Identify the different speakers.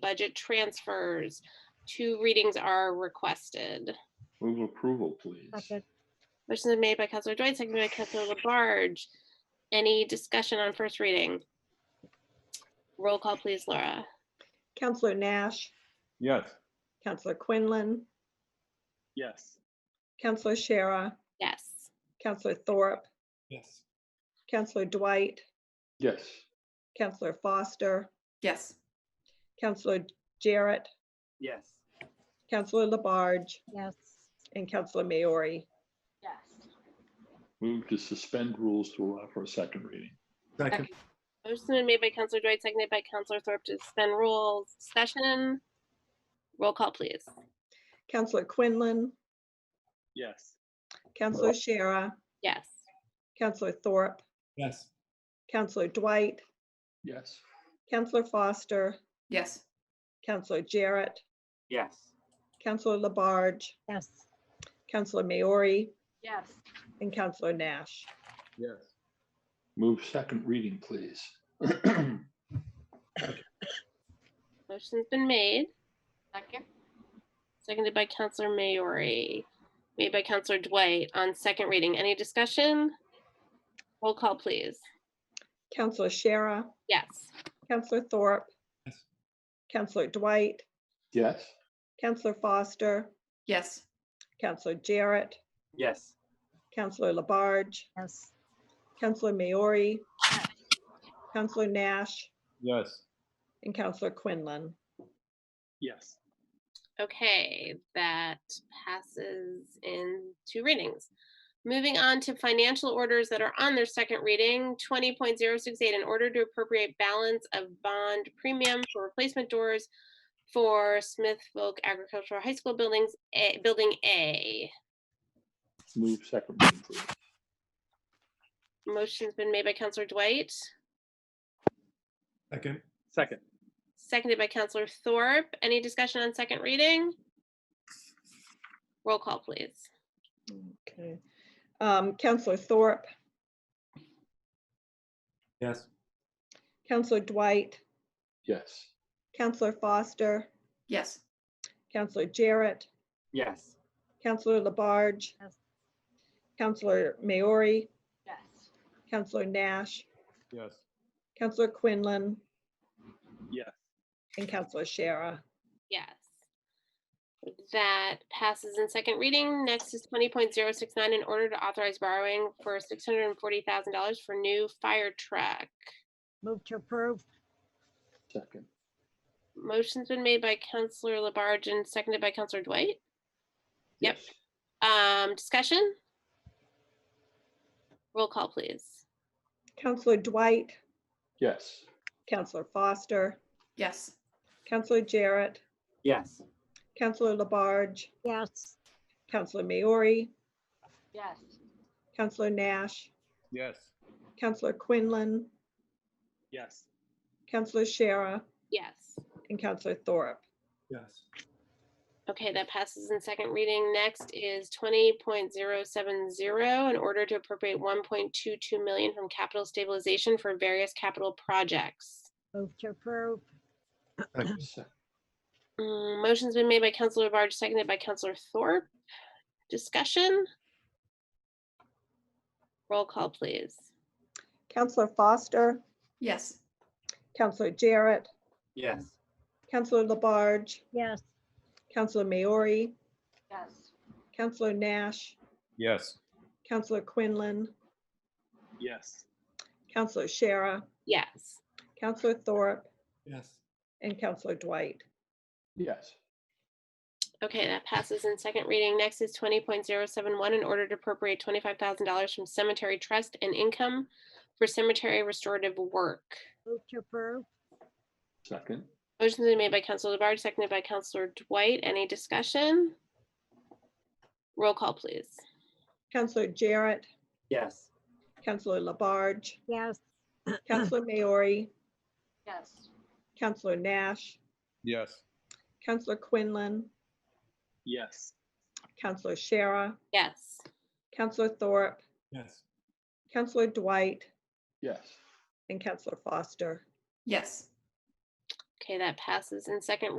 Speaker 1: budget transfers. Two readings are requested.
Speaker 2: Move approval, please.
Speaker 3: Second.
Speaker 1: Motion is made by Counselor Dwight, seconded by Counselor Labarge. Any discussion on first reading? Roll call, please, Laura.
Speaker 3: Counselor Nash,
Speaker 2: Yes.
Speaker 3: Counselor Quinlan,
Speaker 2: Yes.
Speaker 3: Counselor Shara,
Speaker 1: Yes.
Speaker 3: Counselor Thorpe,
Speaker 2: Yes.
Speaker 3: Counselor Dwight,
Speaker 2: Yes.
Speaker 3: Counselor Foster,
Speaker 4: Yes.
Speaker 3: Counselor Jarrett,
Speaker 5: Yes.
Speaker 3: Counselor Labarge,
Speaker 4: Yes.
Speaker 3: and Counselor Maori.
Speaker 4: Yes.
Speaker 2: Move to suspend rules to allow for a second reading.
Speaker 5: Second.
Speaker 1: Motion is made by Counselor Dwight, seconded by Counselor Thorpe to suspend rules. Discussion. Roll call, please.
Speaker 3: Counselor Quinlan,
Speaker 5: Yes.
Speaker 3: Counselor Shara,
Speaker 1: Yes.
Speaker 3: Counselor Thorpe,
Speaker 5: Yes.
Speaker 3: Counselor Dwight,
Speaker 2: Yes.
Speaker 3: Counselor Foster,
Speaker 4: Yes.
Speaker 3: Counselor Jarrett,
Speaker 5: Yes.
Speaker 3: Counselor Labarge,
Speaker 4: Yes.
Speaker 3: Counselor Maori,
Speaker 4: Yes.
Speaker 3: and Counselor Nash.
Speaker 2: Yes. Move second reading, please.
Speaker 1: Motion's been made,
Speaker 4: Second.
Speaker 1: seconded by Counselor Maori, made by Counselor Dwight on second reading. Any discussion? Roll call, please.
Speaker 3: Counselor Shara,
Speaker 1: Yes.
Speaker 3: Counselor Thorpe,
Speaker 5: Yes.
Speaker 3: Counselor Dwight,
Speaker 2: Yes.
Speaker 3: Counselor Foster,
Speaker 4: Yes.
Speaker 3: Counselor Jarrett,
Speaker 5: Yes.
Speaker 3: Counselor Labarge,
Speaker 4: Yes.
Speaker 3: Counselor Maori, Counselor Nash,
Speaker 2: Yes.
Speaker 3: and Counselor Quinlan.
Speaker 5: Yes.
Speaker 1: Okay, that passes in two readings. Moving on to financial orders that are on their second reading, 20.068, in order to appropriate balance of bond premium for replacement doors for Smith Folk Agricultural High School buildings, A- Building A.
Speaker 2: Move second reading, please.
Speaker 1: Motion's been made by Counselor Dwight,
Speaker 5: Second. Second.
Speaker 1: seconded by Counselor Thorpe. Any discussion on second reading? Roll call, please.
Speaker 3: Okay. Um, Counselor Thorpe,
Speaker 5: Yes.
Speaker 3: Counselor Dwight,
Speaker 2: Yes.
Speaker 3: Counselor Foster,
Speaker 4: Yes.
Speaker 3: Counselor Jarrett,
Speaker 5: Yes.
Speaker 3: Counselor Labarge,
Speaker 4: Yes.
Speaker 3: Counselor Maori,
Speaker 4: Yes.
Speaker 3: Counselor Nash,
Speaker 5: Yes.
Speaker 3: Counselor Quinlan,
Speaker 5: Yes.
Speaker 3: and Counselor Shara.
Speaker 1: Yes. That passes in second reading. Next is twenty point zero six nine, in order to authorize borrowing for six hundred and forty thousand dollars for new fire truck.
Speaker 6: Move to approve,
Speaker 2: Second.
Speaker 1: Motion's been made by Counselor Labarge and seconded by Counselor Dwight. Yep. Um, discussion? Roll call, please.
Speaker 3: Counselor Dwight,
Speaker 2: Yes.
Speaker 3: Counselor Foster,
Speaker 4: Yes.
Speaker 3: Counselor Jarrett,
Speaker 5: Yes.
Speaker 3: Counselor Labarge,
Speaker 6: yes,
Speaker 3: Counselor Maori,
Speaker 4: Yes.
Speaker 3: Counselor Nash,
Speaker 5: Yes.
Speaker 3: Counselor Quinlan,
Speaker 5: Yes.
Speaker 3: Counselor Shara,
Speaker 1: Yes.
Speaker 3: and Counselor Thorpe.
Speaker 5: Yes.
Speaker 1: Okay, that passes in second reading. Next is twenty point zero seven zero, in order to appropriate one point two two million from capital stabilization for various capital projects.
Speaker 6: move to approve,
Speaker 2: Sec-
Speaker 1: Mm, Motion's been made by Counselor Barge, seconded by Counselor Thorpe. Discussion? Roll call, please.
Speaker 3: Counselor Foster,
Speaker 4: Yes.
Speaker 3: Counselor Jarrett,
Speaker 5: Yes.
Speaker 3: Counselor Labarge,
Speaker 6: yes,
Speaker 3: Counselor Maori,
Speaker 4: Yes.
Speaker 3: Counselor Nash,
Speaker 5: Yes.
Speaker 3: Counselor Quinlan,
Speaker 5: Yes.
Speaker 3: Counselor Shara,
Speaker 1: Yes.
Speaker 3: Counselor Thorpe,
Speaker 5: Yes.
Speaker 3: and Counselor Dwight.
Speaker 2: Yes.
Speaker 1: Okay, that passes in second reading. Next is twenty point zero seven one, in order to appropriate twenty-five thousand dollars from cemetery trust and income for cemetery restorative work.
Speaker 6: move to approve,
Speaker 2: Second.
Speaker 1: Motion's been made by Counselor Labarge, seconded by Counselor Dwight. Any discussion? Roll call, please.
Speaker 3: Counselor Jarrett,
Speaker 5: Yes.
Speaker 3: Counselor Labarge,
Speaker 6: yes,
Speaker 3: Counselor Maori,
Speaker 4: Yes.
Speaker 3: Counselor Nash,
Speaker 5: Yes.
Speaker 3: Counselor Quinlan,
Speaker 5: Yes.
Speaker 3: Counselor Shara,
Speaker 1: Yes.
Speaker 3: Counselor Thorpe,
Speaker 5: Yes.
Speaker 3: Counselor Dwight,
Speaker 2: Yes.
Speaker 3: and Counselor Foster.
Speaker 4: Yes.
Speaker 1: Okay, that passes in second